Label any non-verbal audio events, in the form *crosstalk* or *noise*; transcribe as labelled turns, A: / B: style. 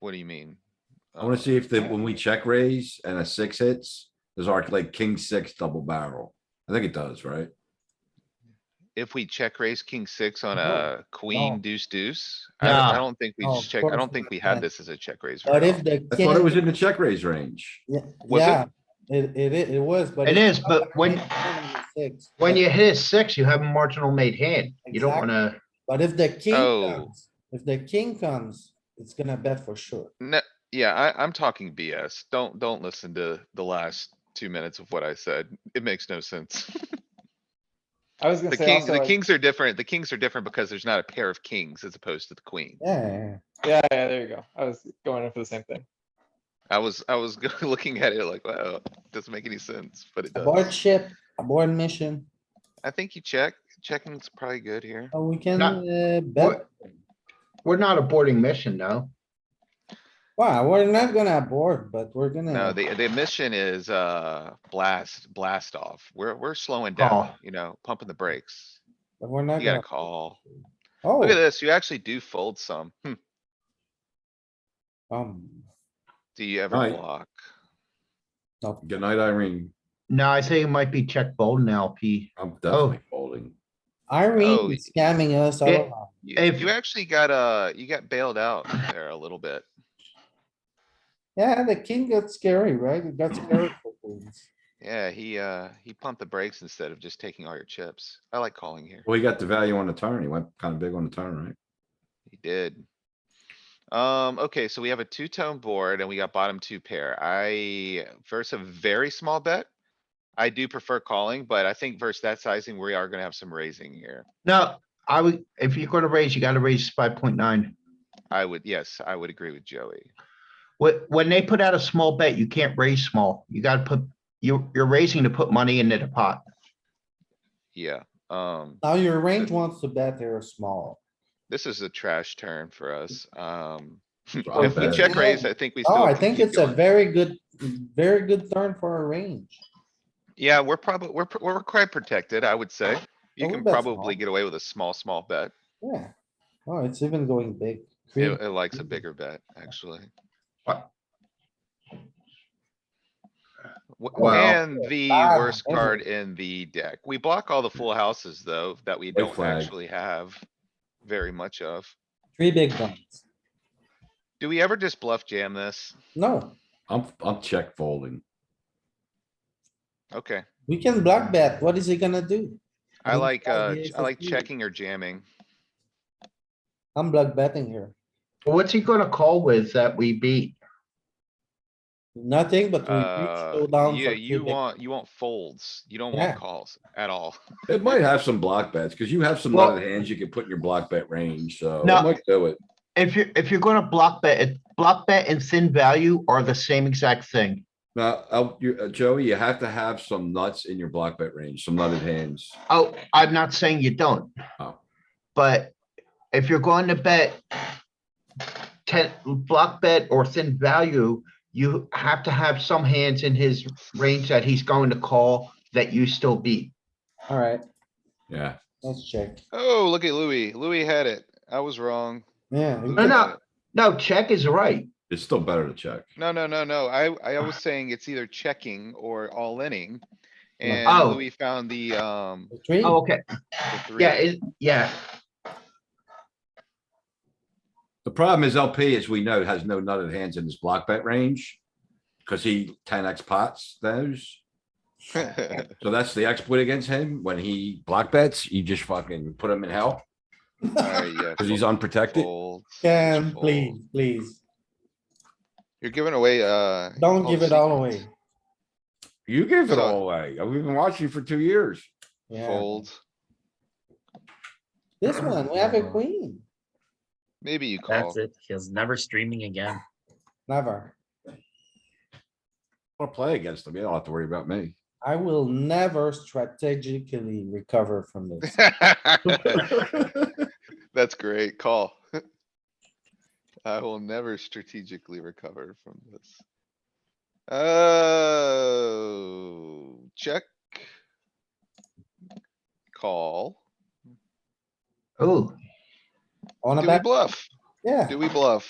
A: What do you mean?
B: I wanna
A: Uh,
B: see if that when we check raise and a six hits, there's our like king six double barrel. I think it does, right?
A: If we check raise king six on
C: No,
A: a
C: no.
A: queen deuce deuce, I don't- I
C: No,
A: don't think we
C: no,
A: just
C: of
A: check, I
C: course
A: don't think we
C: not.
A: had this as a check raise.
C: But
A: round.
C: if the
B: I thought it was
C: king,
B: in the check raise range.
C: yeah,
A: Was it?
C: yeah, it, it, i- it was, but.
D: It
C: it's
D: is,
C: not
D: but when-
C: like six,
D: When
C: but-
D: you hit a six, you have a marginal made hand. You don't
C: Exactly.
D: wanna,
C: But if the king
A: Oh.
C: comes, if the king comes, it's gonna bet for sure.
A: No, yeah, I, I'm talking BS. Don't, don't listen to the last two minutes of what I said. It makes no
C: *laughs*
A: sense.
E: I was gonna
A: The
E: say
A: king, the
E: also, like-
A: kings are different. The kings are different because there's not a pair of kings as opposed to the queen.
C: Yeah,
E: yeah, yeah, there you go. I was going in for the same thing.
A: I was, I was *laughs* looking at it like, wow, doesn't make any sense, but it
C: board
A: does.
C: ship, board mission,
A: I think you check, checking's probably good here.
C: Uh, we can
D: Not-
C: uh,
D: we're,
C: bet.
D: we're not aborting mission, no.
C: Wow, we're not gonna board, but we're gonna.
A: No, the, the mission is, uh, blast, blast off. We're, we're slowing down,
D: Call.
A: you know, pumping the brakes.
C: But we're not
A: You gotta
C: gonna.
A: call.
C: Oh,
A: Look at this. You actually do fold some. Hmm.
C: um,
A: Do you ever
B: Right.
A: block?
B: Good night, Irene.
D: No, I think it might be check fold and LP.
B: I'm definitely folding.
A: Oh,
C: Irene is scamming us all
D: it-
C: along.
A: You,
D: If-
A: you actually got, uh, you got bailed out there a little bit.
C: Yeah, the king got scary, right? It got scary for queens.
A: Yeah, he, uh, he pumped the brakes instead of just taking all your chips. I like calling here.
B: Well, he got the value on the turn. He went kind of big on the
A: *laughs*
B: turn, right?
A: He did. Um, okay, so we have a two-tone board and we got bottom two pair. I, versus a very small bet. I do prefer calling, but I think versus that sizing, we are gonna have some raising here.
D: No, I would, if you're gonna raise, you gotta raise five point nine.
A: I would, yes, I would agree with Joey.
D: When, when they put out a small bet, you can't raise small. You gotta put, you, you're raising to put money into the pot.
A: Yeah, um,
C: Now your range wants to bet they're small.
A: this is a trash turn for us. Um,
B: Drop
A: if we
B: bet.
A: check raise, I think we still.
C: Oh, I
A: can
C: think
A: keep
C: it's a
A: going.
C: very good, very good turn for a range.
A: Yeah, we're probably, we're, pr- we're quite protected, I would say. You
C: Oh,
A: can
C: that's
A: probably
C: small.
A: get away with a small, small bet.
C: Yeah. Oh, it's even going big.
A: It,
C: Three-
A: it likes a bigger bet, actually.
D: What?
A: Wh-
D: Wow.
A: And the
C: Ah,
A: worst
C: okay.
A: card in the deck. We block all the full houses, though, that we don't
B: flag.
A: actually have very much of.
C: Three big ones.
A: Do we ever just bluff jam this?
C: No,
B: I'm, I'm check folding.
A: Okay,
C: we can block bet. What is he gonna do?
A: I
C: think
A: like,
C: that's
A: uh,
C: the
A: ch- I like
C: SSP.
A: checking or jamming.
C: I'm block betting here.
D: What's he gonna call with that we beat?
C: Nothing, but we
A: Uh,
C: reach down.
A: yeah, you want, you want folds. You don't
C: Yeah.
A: want calls at all. *laughs*
B: It might have some block bets, because you have some
D: Well-
B: lot of hands you can put in your block bet range, so it
D: No.
B: might do it.
D: If you're, if you're gonna block bet, it- block bet and thin value are the same exact thing.
B: Now, I'll- you- uh, Joey, you have to have some nuts in your block bet range, some nutted hands.
D: Oh, I'm not saying you don't.
B: Oh.
D: But if you're going to bet ten, block bet or thin value, you have to have some hands in his range that he's going to call that you still beat.
C: Alright,
B: Yeah,
C: let's check.
A: Oh, look at Louis. Louis had it. I was wrong.
C: Yeah. we
A: Louis
D: No,
C: can-
D: no.
A: had it.
D: No, check is right.
B: it's still better to check.
A: No, no, no, no. I, I was saying it's either checking or all inning.
C: No.
A: And
D: Oh.
A: Louis found the, um,
C: the Three.
D: Oh, okay.
A: the three. *laughs*
D: Yeah, it, yeah.
B: The problem is LP, as we know, has no nutted hands in his block bet range. Cause he ten X pots those. So that's the exploit against him. When he block bets, you just fucking put him in hell
A: Alright, yeah,
B: because he's
A: fold,
B: unprotected.
A: fold,
C: Can,
A: fold.
C: please, please,
A: You're giving away, uh.
C: don't give it all
A: secrets.
C: away.
B: You gave it
A: So-
B: all away. I've been watching you for two years.
C: Yeah,
A: Fold.
C: this one, we have a queen.
A: Maybe you call.
F: That's it. He's never streaming again.
C: Never.
B: I want to play against him. You don't have to worry about me.
C: I will never strategically recover
A: *laughs*
C: from this.
A: That's great. Call. *laughs* I will never strategically recover from this. Oh, check. Call.
D: Oh,
C: On a
A: Do we
C: back,
A: bluff?
C: yeah.
A: Do we bluff?